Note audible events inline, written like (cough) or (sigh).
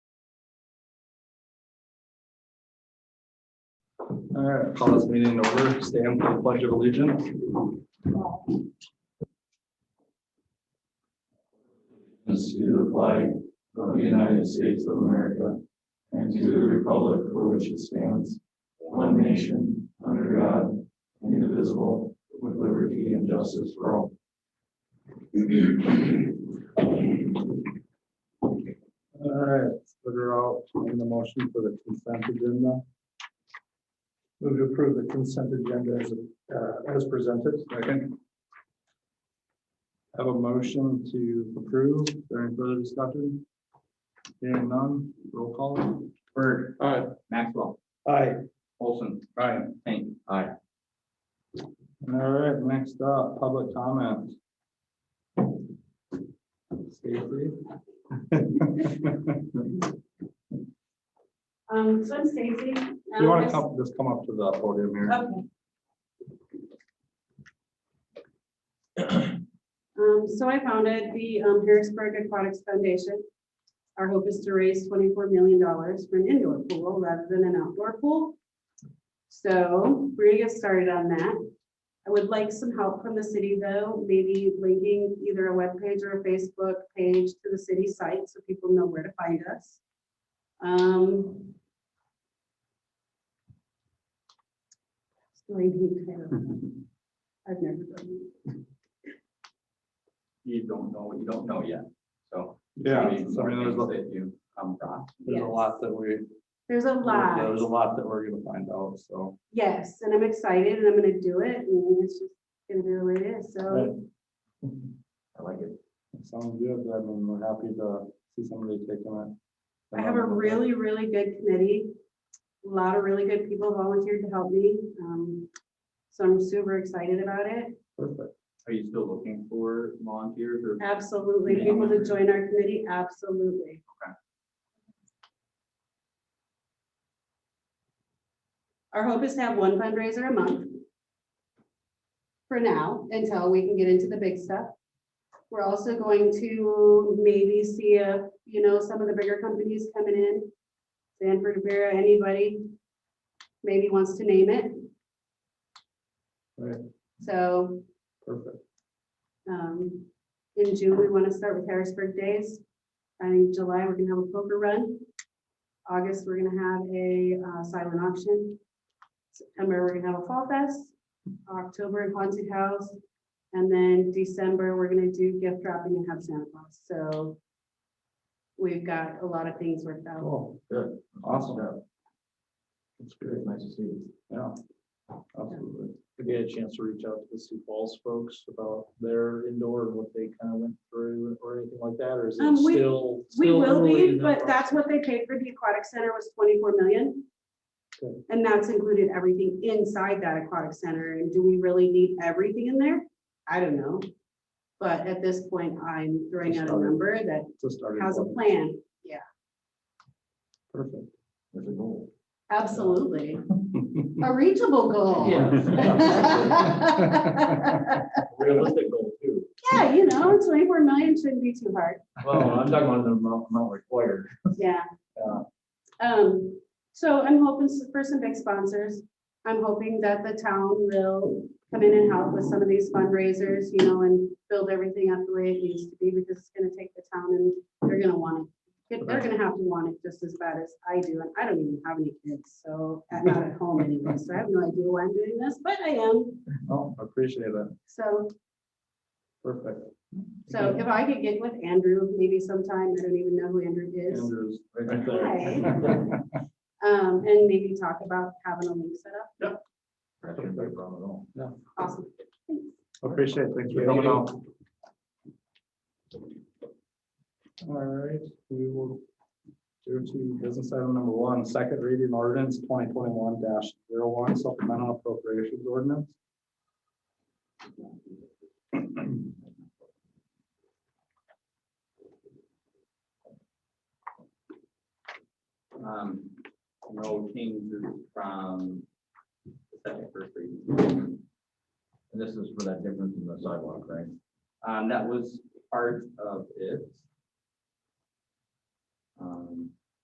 All right, call this meeting in order. Stand for the pledge of allegiance. This to the flag of the United States of America and to the republic for which it stands, one nation, under God, indivisible, with liberty and justice for all. All right, figure out in the motion for the consent agenda. Move to approve the consent agenda as, uh, as presented. Second. Have a motion to approve. Is there any further discussion? Hearing none, roll call. Bird. Aye. Maxwell. Aye. Olson. Aye. Payne. Aye. All right, next up, public comment. Stacy? Um, so I'm Stacy. You want to come, just come up to the podium here. Okay. Um, so I founded the um, Harrisburg Aquatics Foundation. Our hope is to raise twenty-four million dollars for an indoor pool rather than an outdoor pool. So we're gonna get started on that. I would like some help from the city though, maybe linking either a webpage or a Facebook page to the city site so people know where to find us. Um, So I need kind of, I've never done. You don't know what you don't know yet, so. Yeah, maybe so I mean, there's more a, things that you come across. there's a lot that we, there's There's a a lot, lot that we're gonna find out, so. yes, and I'm excited and I'm gonna do it and it's just gonna be the way it is, so. I like it. Sounds good, I mean, we're happy to see somebody taking it. I have a really, really good committee, a lot of really good people volunteered to help me, um, so I'm super excited about it. Perfect. Are you still looking for volunteers or? Absolutely, people to join our committee, absolutely. Our hope is to have one fundraiser a month. For now, until we can get into the big stuff. We're also going to maybe see if, you know, some of the bigger companies coming in. Sanford, Vera, anybody. Maybe wants to name it. Right. So, Perfect. um, in June, we want to start with Harrisburg Days. In July, we're gonna have a poker run. August, we're gonna have a uh, silent auction. September, we're gonna have a fall fest. October, a haunted house. And then December, we're gonna do gift wrapping and have Santa Claus. So we've got a lot of things worked out. Cool. Good. Awesome. That's great, Nice to see you. yeah. Absolutely. I get a chance to reach out to the Sioux Falls folks about their indoor and what they kind of went through or anything like that, or is it Um, we- still? We still will early be, in the but that's process? what they paid for the aquatic center was twenty-four million. Good. And that's included everything inside that aquatic center. And do we really need everything in there? I don't know. But at this point, I'm throwing out a number that It's a starting has a point. plan. Perfect. There's a goal. Absolutely. (laughs) A reachable goal. (laughs) Yeah. (laughs) Yeah, Realistic goal too. you know, twenty-four million shouldn't be too hard. Well, I'm talking about the amount amount required. Yeah. Yeah. Um, so I'm hoping s- for some big sponsors. I'm hoping that the town will come in and help with some of these fundraisers, you know, and build everything up the way it needs to be because it's gonna take the town and they're gonna want it. If They're gonna have to want it just as bad as I do, and I don't even have any kids, so I'm not at home anymore, so I have no idea why I'm doing this, but I am. Oh, appreciate it. So, Perfect. so if I could get with Andrew maybe sometime, I don't even know who Andrew is. Andrew's right (laughs) Hi. there. Um, and maybe talk about having a link set up. (laughs) That shouldn't be a problem at all. Awesome. Appreciate it. Thank you for coming Thank you. out. All right, we will go to business item number one, second reading ordinance twenty twenty-one one supplemental appropriations ordinance. Um, no changes from the second first reading. And this is for that difference in the sidewalk, right? Um, that was part of it. Um,